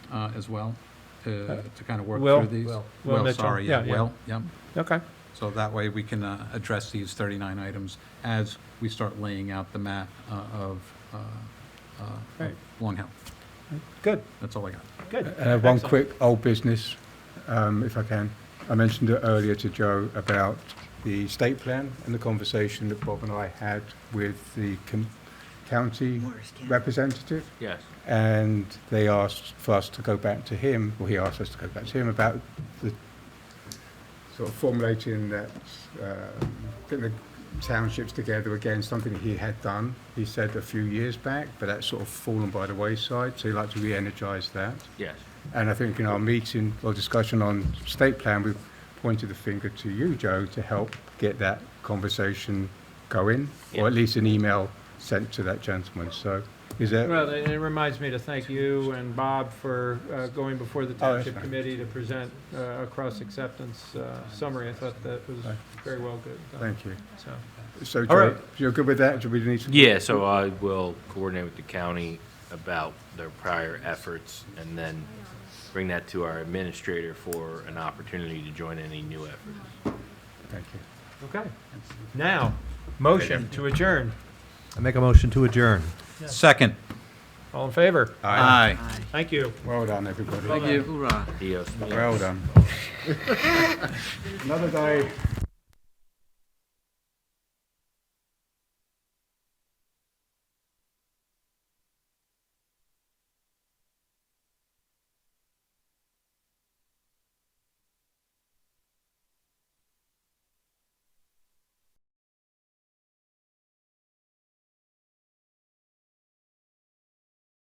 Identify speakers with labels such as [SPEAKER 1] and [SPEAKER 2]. [SPEAKER 1] uh, as well, to, to kind of work
[SPEAKER 2] Uh, Will?
[SPEAKER 1] through these?
[SPEAKER 3] Well,
[SPEAKER 2] Will
[SPEAKER 1] Well,
[SPEAKER 2] Mitchell.
[SPEAKER 1] sorry, yeah,
[SPEAKER 2] Yeah, yeah.
[SPEAKER 1] well, yeah.
[SPEAKER 2] Okay,
[SPEAKER 1] So that way we can uh, address these 39 items as we start laying out the map uh, of uh, uh, of
[SPEAKER 2] Right.
[SPEAKER 1] Long Hill.
[SPEAKER 2] good,
[SPEAKER 1] That's all I got.
[SPEAKER 2] good.
[SPEAKER 4] Uh, One
[SPEAKER 2] Excellent.
[SPEAKER 4] quick old business, um, if I can. I mentioned it earlier to Joe about the state plan and the conversation that Bob and I had with the com- county representative.
[SPEAKER 3] yes.
[SPEAKER 4] And they asked for us to go back to him, or he asked us to go back to him about the sort of formulating that, um, getting the townships together again, something that he had done, he said a few years back, but that's sort of fallen by the wayside, so he'd like to re-energise that.
[SPEAKER 3] Yes.
[SPEAKER 4] And I think in our meeting or discussion on state plan, we pointed the finger to you, Joe, to help get that conversation going, or at least an email sent to that gentleman. So is that,
[SPEAKER 2] Well, it it reminds me to thank you and Bob for uh, going before the
[SPEAKER 4] Oh, that's
[SPEAKER 2] Township
[SPEAKER 4] fine.
[SPEAKER 2] Committee to present uh, a cross-acceptance uh, summary. I thought that was
[SPEAKER 4] Right.
[SPEAKER 2] very well good. done,
[SPEAKER 4] thank you.
[SPEAKER 2] So,
[SPEAKER 4] So
[SPEAKER 2] All
[SPEAKER 4] Joe,
[SPEAKER 2] right.
[SPEAKER 4] you're good with that? Do we need to?
[SPEAKER 3] Yeah, so I will coordinate with the county about their prior efforts and then bring that to our administrator for an opportunity to join any new efforts.
[SPEAKER 4] Thank you.
[SPEAKER 2] okay. Now, motion to adjourn.
[SPEAKER 5] I make a motion to adjourn.
[SPEAKER 1] Second.
[SPEAKER 2] All in favor?
[SPEAKER 4] Uh,
[SPEAKER 1] Aye.
[SPEAKER 2] Thank you.
[SPEAKER 4] Well done, everybody.
[SPEAKER 1] Thank you.
[SPEAKER 3] Dios mío.
[SPEAKER 4] Well done. Another day.